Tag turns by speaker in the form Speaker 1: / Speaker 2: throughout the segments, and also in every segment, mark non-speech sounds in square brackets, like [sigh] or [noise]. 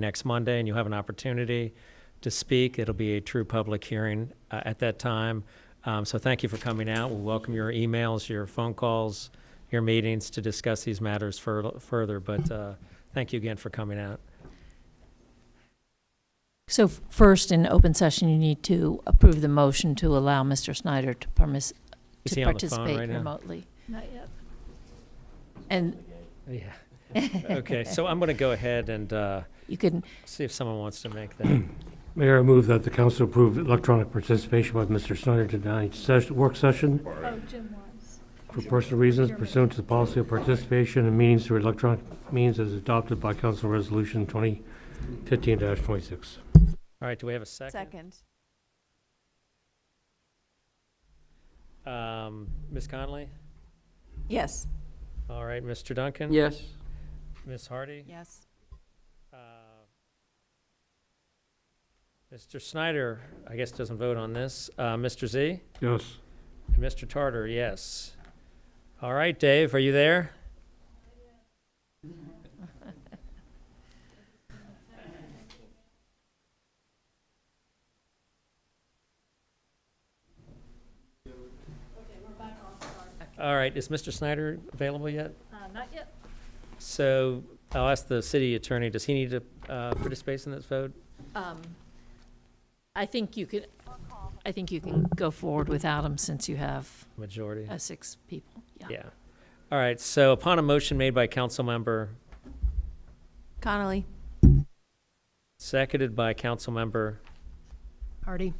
Speaker 1: next Monday, and you'll have an opportunity to speak. It'll be a true public hearing uh, at that time. Um, So thank you for coming out. We'll welcome your emails, your phone calls, your meetings to discuss these matters fur- further, but uh, thank you again for coming out.
Speaker 2: So f- first, in open session, you need to approve the motion to allow Mr. Snyder to permis,
Speaker 1: Is
Speaker 2: to
Speaker 1: he on the phone right
Speaker 2: participate
Speaker 1: now?
Speaker 2: remotely. And
Speaker 1: [laughs] Yeah. Okay, so I'm going to go ahead and uh,
Speaker 2: you can,
Speaker 1: see if someone wants to make that.
Speaker 3: Mayor, I move that the council approve electronic participation by Mr. Snyder to tonight's session, work session
Speaker 4: Oh, Jim was.
Speaker 3: for personal reasons pursuant to the policy of participation in meetings through electronic means as adopted by Council Resolution 2015-26.
Speaker 1: All right, do we have a second? Um, Ms. Conley?
Speaker 5: Yes.
Speaker 1: All right, Mr. Duncan?
Speaker 6: Yes.
Speaker 1: Ms. Hardy?
Speaker 5: Yes.
Speaker 1: Uh, Mr. Snyder, I guess, doesn't vote on this. Uh, Mr. Z?
Speaker 3: Yes.
Speaker 1: And Mr. Tartar, yes. All right, Dave, are you there? All right, is Mr. Snyder available yet?
Speaker 4: Uh, Not yet.
Speaker 1: So I'll ask the city attorney, does he need to uh, participate in this vote?
Speaker 2: um, I think you could, I think you can go forward without him since you have
Speaker 1: Majority?
Speaker 2: uh, six people. Yeah.
Speaker 1: Yeah. All right, so upon a motion made by council member,
Speaker 5: Connolly.
Speaker 1: seconded by council member,
Speaker 5: Hardy.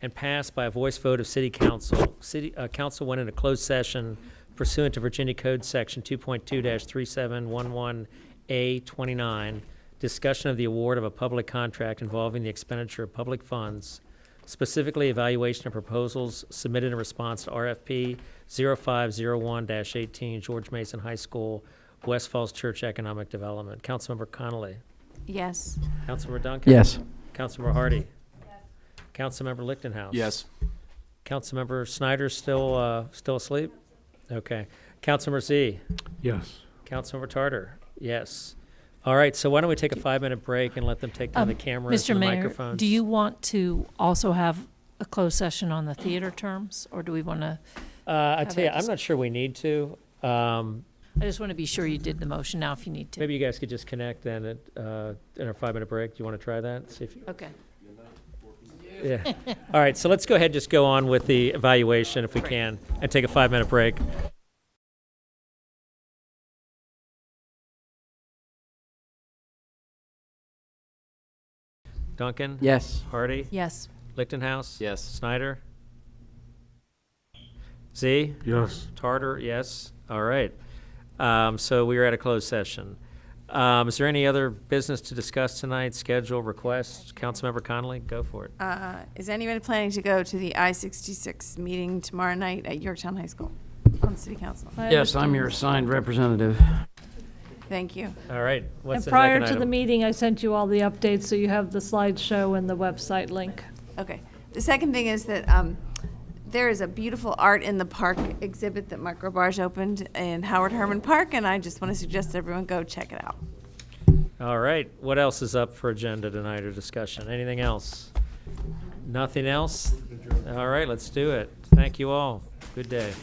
Speaker 1: and passed by a voice vote of city council, city, uh, council went into closed session pursuant to Virginia Code Section two point two three seven one one A twenty-nine, discussion of the award of a public contract involving the expenditure of public funds, specifically evaluation of proposals submitted in response to RFP 501 eighteen, George Mason High School, West Falls Church Economic Development. Councilmember Connolly.
Speaker 5: Yes.
Speaker 1: Councilmember Duncan?
Speaker 6: Yes.
Speaker 1: Councilmember Hardy? Councilmember Lichtenhouse?
Speaker 6: Yes.
Speaker 1: Councilmember Snyder still, uh, still asleep? Okay. Councilmember Z?
Speaker 3: Yes.
Speaker 1: Councilmember Tartar? Yes. All right, so why don't we take a five-minute break and let them take down
Speaker 2: Um,
Speaker 1: the cameras
Speaker 2: Mr.
Speaker 1: and the
Speaker 2: Mayor,
Speaker 1: microphones?
Speaker 2: do you want to also have a closed session on the theater terms? Or do we want to,
Speaker 1: Uh, I
Speaker 2: have
Speaker 1: tell
Speaker 2: a
Speaker 1: you, I'm
Speaker 2: dis-
Speaker 1: not sure we need to. Um,
Speaker 2: I just want to be sure you did the motion now if you need to.
Speaker 1: maybe you guys could just connect then at, uh, in our five-minute break. Do you want to try that? See if you,
Speaker 2: Okay.
Speaker 1: yeah. All right, so let's go ahead, and just go on with the evaluation if we
Speaker 2: Great.
Speaker 1: can, and take a five-minute break. Duncan?
Speaker 6: Yes.
Speaker 1: Hardy?
Speaker 5: Yes.
Speaker 1: Lichtenhouse?
Speaker 6: Yes.
Speaker 1: Snyder? Z?
Speaker 3: Yes.
Speaker 1: Tartar, yes. All right. Um, So we are at a closed session. Um, Is there any other business to discuss tonight, schedule, requests? Councilmember Connolly, go for it.
Speaker 5: Uh, is anybody planning to go to the I-66 meeting tomorrow night at Yorktown High School on City Council?
Speaker 6: Yes, I'm your assigned representative.
Speaker 5: Thank you.
Speaker 1: All right.
Speaker 4: And
Speaker 1: What's the
Speaker 4: prior
Speaker 1: second
Speaker 4: to the
Speaker 1: item?
Speaker 4: meeting, I sent you all the updates, so you have the slideshow and the website link.
Speaker 5: Okay. The second thing is that um, there is a beautiful Art in the Park exhibit that Mark Robarge opened in Howard Herman Park, and I just want to suggest everyone go check it out.
Speaker 1: All right. What else is up for agenda tonight or discussion? Anything else? Nothing else? All right, let's do it. Thank you all. Good day.